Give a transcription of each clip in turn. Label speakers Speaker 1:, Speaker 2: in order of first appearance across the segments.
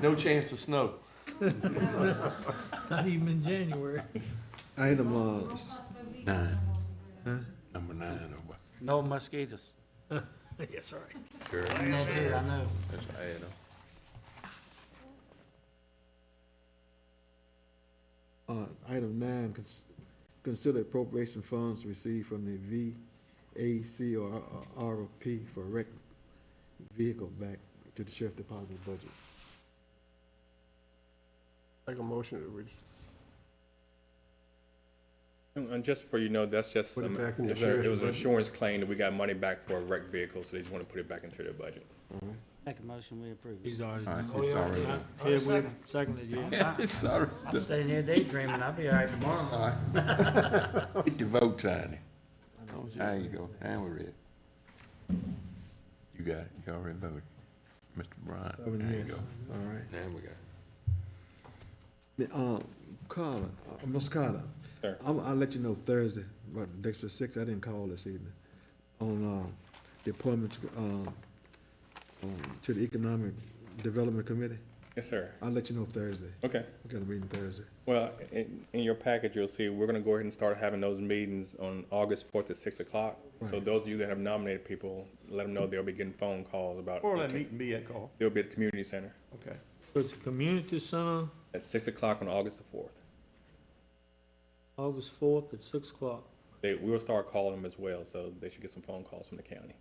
Speaker 1: No chance of snow.
Speaker 2: Not even in January.
Speaker 3: Item, uh, s-
Speaker 4: Nine. Number nine, oh, or what?
Speaker 5: No mosquitoes.
Speaker 2: Yeah, sorry.
Speaker 4: Sure.
Speaker 5: That too, I know.
Speaker 4: That's an add-on.
Speaker 3: uh, item nine, cons- consider appropriation funds received from the uh, VACRP for wreck vehicle back to the sheriff department budget.
Speaker 1: Make a motion that we
Speaker 6: And and just for you know, that's just,
Speaker 1: Put it
Speaker 6: some-
Speaker 1: back in the
Speaker 6: it was a- it was an
Speaker 1: sheriff's budget.
Speaker 6: insurance claim that we got money back for a wrecked vehicle, so they just want to put it back into their budget.
Speaker 5: Make a motion, we approve it.
Speaker 2: He's already
Speaker 4: All right,
Speaker 2: done.
Speaker 4: Oh, he's yeah. already done.
Speaker 2: Yeah, we seconded you.
Speaker 4: Yeah, sorry.
Speaker 5: I'm staying here daydreaming, I'll be all right tomorrow.
Speaker 4: All right. Get your vote sign it. There you go, now we're ready. You got it, you already voted. Mr. Bryant,
Speaker 3: Seven
Speaker 4: there you go.
Speaker 3: yes. All right.
Speaker 4: Now we got it.
Speaker 3: The, Um, Carla, uh, Ms. Carla.
Speaker 6: Sir.
Speaker 3: I'm, I'll let you know Thursday, about the Dexter six, I didn't call this evening, on, um, the appointment to, um, um, to the Economic Development Committee.
Speaker 6: Yes, sir.
Speaker 3: I'll let you know Thursday.
Speaker 6: Okay.
Speaker 3: We got a meeting Thursday.
Speaker 6: Well, in, in your package, you'll see, we're gonna go ahead and start having those meetings on August fourth at six o'clock. So
Speaker 3: Right.
Speaker 6: those of you that have nominated people, let them know they'll be getting phone calls about.
Speaker 1: Where will that meeting be at, Carl?
Speaker 6: They'll be at the community center
Speaker 1: Okay.
Speaker 2: It's a community center,
Speaker 6: at six o'clock on August the fourth.
Speaker 2: August fourth at six o'clock.
Speaker 6: They, we will start calling them as well, so they should get some phone calls from the county.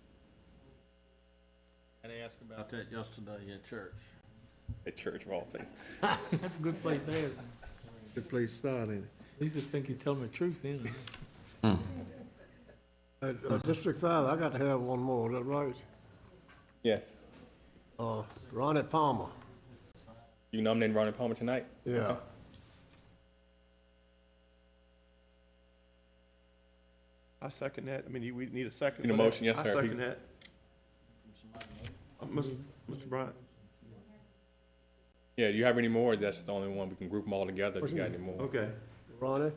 Speaker 5: I asked about that yesterday at church.
Speaker 6: At church of all places.
Speaker 2: That's a good place to ask. him.
Speaker 3: Good place style, ain't it?
Speaker 2: At least they think you tell them the truth then.
Speaker 7: Uh, uh, District Five, I got to have one more, is that right?
Speaker 6: Yes.
Speaker 7: Uh, Ronnie Palmer,
Speaker 6: You nominating Ronnie Palmer tonight?
Speaker 7: yeah.
Speaker 1: I second that. I mean, you- we need a second.
Speaker 6: Need a
Speaker 1: for that.
Speaker 6: motion, yes, sir.
Speaker 1: I second that. Uh, Mr. Mr. Bryant,
Speaker 6: Yeah, do you have any more? That's just the only one. We can group them all together if you got any more.
Speaker 1: okay.
Speaker 7: Ronnie,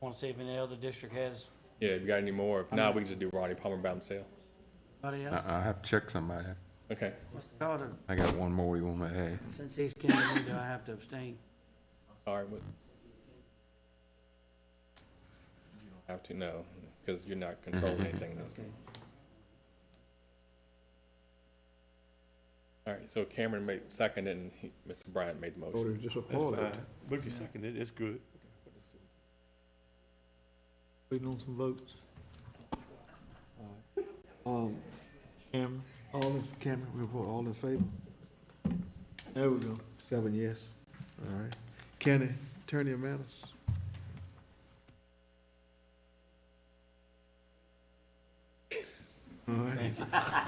Speaker 5: Want to see if any other district has,
Speaker 6: Yeah, if you got any more. If not, we can just do Ronnie Palmer by himself.
Speaker 5: anybody else?
Speaker 4: I, I have to check somebody.
Speaker 6: Okay.
Speaker 5: Mr. Carter,
Speaker 4: I got one more you want to add.
Speaker 5: since he's king, do I have to abstain?
Speaker 6: All right. What? Have to know because you're not controlling anything. else.
Speaker 5: Okay.
Speaker 6: All right. So Cameron made second and he, Mr. Bryant made the motion.
Speaker 7: voted
Speaker 1: That's
Speaker 7: disappointed.
Speaker 1: fine. Bookie seconded. It's good.
Speaker 2: Waiting on some votes.
Speaker 3: Um,
Speaker 2: Cameron,
Speaker 3: all in, Cameron, report, all in favor?
Speaker 2: there we go.
Speaker 3: Seven yes. All right. County Attorney Matters? All right.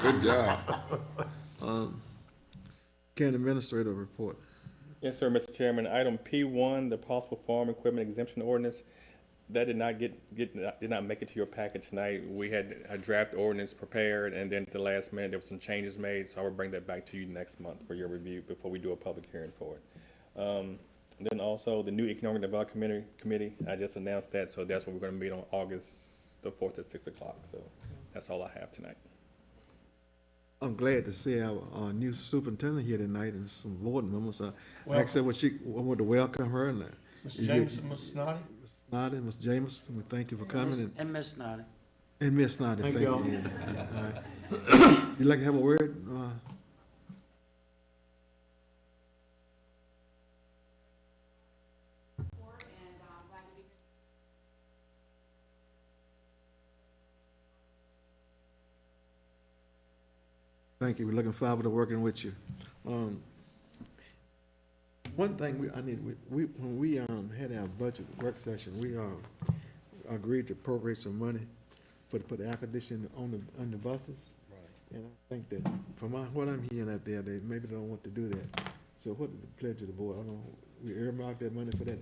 Speaker 4: Good job.
Speaker 3: County Administrator report.
Speaker 6: Yes, sir, Mr. Chairman. Item P one, the possible farm equipment exemption ordinance. That did not get, get, did not make it to your package tonight. We had a draft ordinance prepared and then at the last minute, there were some changes made. So I will bring that back to you next month for your review before we do a public hearing for it. Um, then also the new economic development committee, committee, I just announced that. So that's what we're gonna meet on August the fourth at six o'clock. So that's all I have tonight.
Speaker 3: I'm glad to see our, our new superintendent here tonight and some board members. I asked her what she, I wanted to welcome her and that.
Speaker 1: Mr. Jameson, Mr. Snoddy?
Speaker 3: Snoddy, Ms. James, we thank you for coming and,
Speaker 5: And Ms. Snyder.
Speaker 3: and Ms. Snoddy,
Speaker 2: Thank
Speaker 3: thank you.
Speaker 2: y'all.
Speaker 3: yeah, yeah, all right. You like to have a word? Uh, Thank you. We're looking forward to working with you. Um, one thing we, I need, we- we, when we, um, had our budget work session, we, um, agreed to appropriate some money for, for the air conditioning on the, on the buses. Right. And I think that, from my- what I'm hearing out there, they maybe don't want to do that. So what is the pledge of the board? I don't, we earmarked that money for that,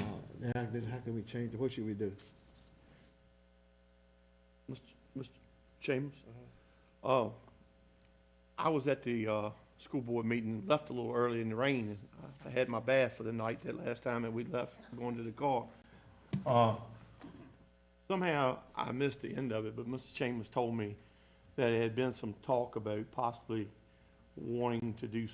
Speaker 3: uh, now, then how can we change it? What should we do?
Speaker 1: Mr. Mr. Chambers? Oh, I was at the, uh, school board meeting, left a little early in the rain, and I- I had my bath for the night that last time, and we left going to the car. Uh, somehow, I missed the end of it, but Mr. Chambers told me that there had been some talk about possibly wanting to do